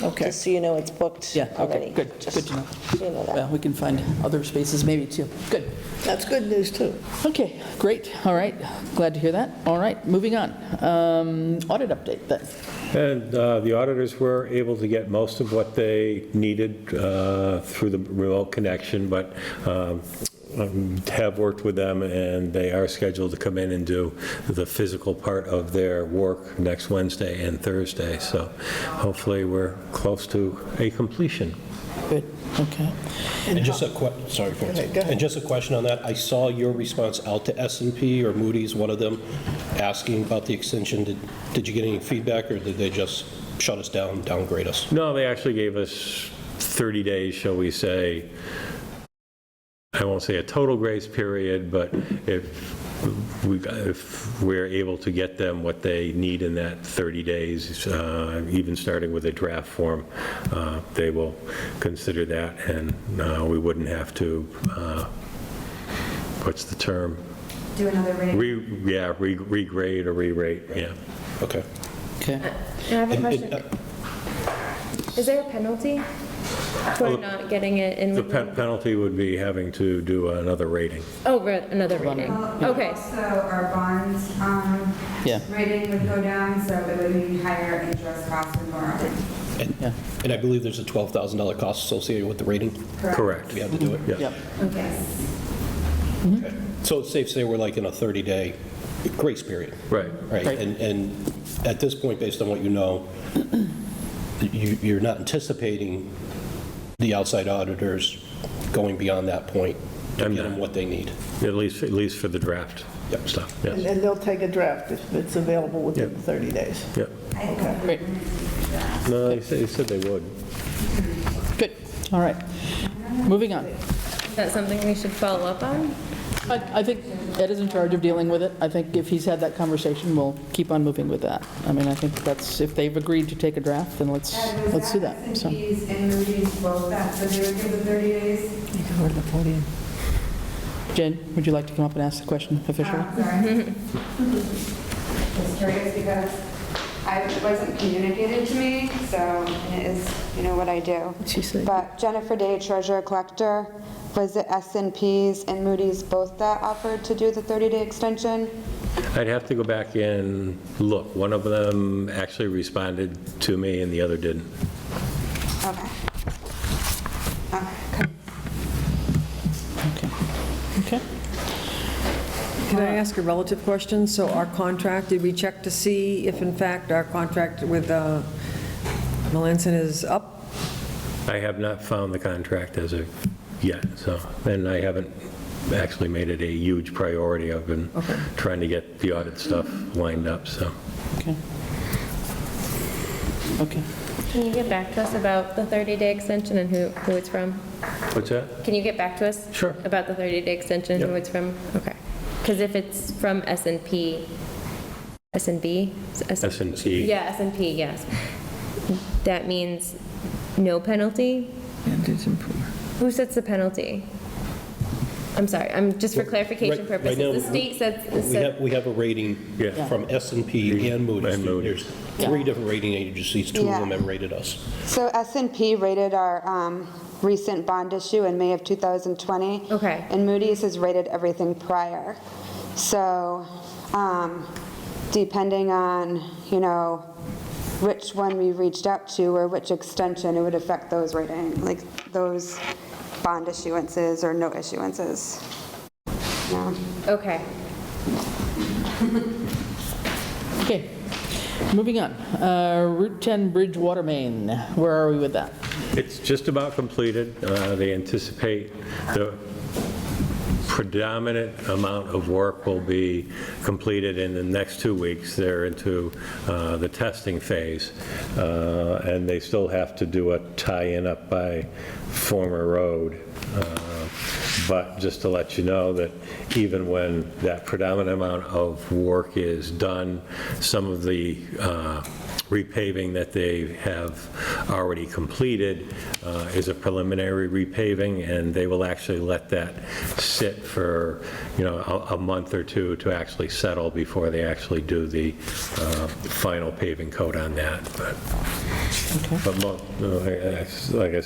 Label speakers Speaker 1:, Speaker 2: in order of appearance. Speaker 1: Okay.
Speaker 2: Just so you know, it's booked
Speaker 3: Yeah,
Speaker 2: already.
Speaker 3: okay, good,
Speaker 2: Just
Speaker 3: good to know.
Speaker 2: so you know that.
Speaker 3: Well, we can find other spaces maybe too. Good.
Speaker 1: That's good news, too.
Speaker 3: Okay, great, all right, glad to hear that. All right, moving on. Um, Audit update then.
Speaker 4: And uh, the auditors were able to get most of what they needed uh, through the remote connection, but um, um, have worked with them, and they are scheduled to come in and do the physical part of their work next Wednesday and Thursday. So hopefully, we're close to a completion.
Speaker 3: Good, okay.
Speaker 5: And just a que, sorry, Francis.
Speaker 1: ahead, go ahead.
Speaker 5: And just a question on that. I saw your response out to s and P or Moody's, one of them, asking about the extension. Did Did you get any feedback, or did they just shut us down, downgrade us?
Speaker 4: No, they actually gave us 30 days, shall we say, I won't say a total grace period, but if we, if we're able to get them what they need in that 30 days, uh, even starting with a draft form, uh, they will consider that, and uh, we wouldn't have to, uh, what's the term?
Speaker 6: Do another rating.
Speaker 4: Re, yeah, re- regrade or re-rate, yeah.
Speaker 5: Okay.
Speaker 3: Okay,
Speaker 7: I have a
Speaker 5: And- and,
Speaker 7: question.
Speaker 5: uh,
Speaker 4: uh,
Speaker 7: Is there a penalty for not getting it in?
Speaker 4: Oh. The pe- penalty would be having to do another rating.
Speaker 7: Oh, re- another rating. Okay.
Speaker 6: Also, our bonds, um,
Speaker 3: Yeah.
Speaker 6: rating would go down, so it would mean higher interest costs and borrowing.
Speaker 3: yeah,
Speaker 5: And I believe there's a $12,000 cost associated with the rating.
Speaker 4: Correct.
Speaker 5: We had to do it.
Speaker 4: Yeah.
Speaker 3: yeah,
Speaker 6: Yes.
Speaker 5: So it's safe to say we're like in a 30-day grace period.
Speaker 4: Right.
Speaker 5: Right,
Speaker 3: Right.
Speaker 5: and, and at this point, based on what you know, you, you're not anticipating the outside auditors going beyond that point to
Speaker 4: I'm
Speaker 5: get them
Speaker 4: not.
Speaker 5: what they need.
Speaker 4: At least, at least for the draft
Speaker 5: Yep.
Speaker 4: stuff,
Speaker 1: And
Speaker 4: yes.
Speaker 1: and they'll take a draft if it's available within
Speaker 4: Yeah.
Speaker 1: 30 days.
Speaker 4: Yep.
Speaker 3: great,
Speaker 4: No, they said, they said they would.
Speaker 3: good, all right. Moving on.
Speaker 7: Is that something we should follow up on?
Speaker 3: I I think Ed is in charge of dealing with it. I think if he's had that conversation, we'll keep on moving with that. I mean, I think that's, if they've agreed to take a draft, then let's,
Speaker 6: And
Speaker 3: let's do
Speaker 6: was
Speaker 3: that, so.
Speaker 6: S&Ps and Moody's both that, so they would give the 30 days?
Speaker 3: Jen, would you like to come up and ask the question officially?
Speaker 6: Um, sorry. Just curious because I it wasn't communicated to me, so and it is, you know, what I do.
Speaker 1: She said-
Speaker 6: But Jennifer Day, treasurer collector, was it S and Ps and Moody's both that offered to do the 30-day extension?
Speaker 4: I'd have to go back and look. One of them actually responded to me and the other didn't.
Speaker 6: Okay. Okay, cool.
Speaker 3: Okay. Okay.
Speaker 8: Can I ask a relative question? So our contract, did we check to see if in fact our contract with uh, Melanson is up?
Speaker 4: I have not found the contract as of yet, so, and I haven't actually made it a huge priority. I've been trying to get the audit stuff lined up, so.
Speaker 3: Okay. Okay.
Speaker 7: Can you get back to us about the 30-day extension and who, who it's from?
Speaker 4: What's that?
Speaker 7: Can you get back to us?
Speaker 4: Sure.
Speaker 7: About the 30-day extension, and who
Speaker 4: Yep.
Speaker 7: it's from? Okay. Because if it's from S and P, S and B?
Speaker 4: S and P.
Speaker 7: Yeah, S and P, yes. That means no penalty?
Speaker 1: And it's improved.
Speaker 7: Who sets the penalty? I'm sorry, I'm, just for
Speaker 5: Well,
Speaker 7: clarification
Speaker 5: right- right
Speaker 7: purposes,
Speaker 5: now,
Speaker 7: the state sets,
Speaker 5: We
Speaker 7: set-
Speaker 5: have, we have a rating
Speaker 4: Yeah.
Speaker 5: from s and P and Moody's.
Speaker 4: And Moody's.
Speaker 5: There's three different rating agencies, two of
Speaker 6: Yeah.
Speaker 5: them have rated us.
Speaker 6: So s and P rated our um, recent bond issue in May of 2020.
Speaker 7: Okay.
Speaker 6: And Moody's has rated everything prior. So um, depending on, you know, which one we reached out to or which extension, it would affect those rating, like those bond issuances or no issuances. Yeah.
Speaker 7: okay.
Speaker 3: Okay. Moving on. Uh, Route 10 Bridge Water Main, where are we with that?
Speaker 4: It's just about completed. Uh, They anticipate the predominant amount of work will be completed in the next two weeks. They're into uh, the testing phase, Uh, and they still have to do a tie-in up by former road. Uh, But just to let you know that even when that predominant amount of work is done, some of the uh, repaving that they have already completed uh, is a preliminary repaving, and they will actually let that sit for, you know, a a month or two to actually settle before they actually do the uh, final paving coat on that. But but mo- no, uh, I- I- like I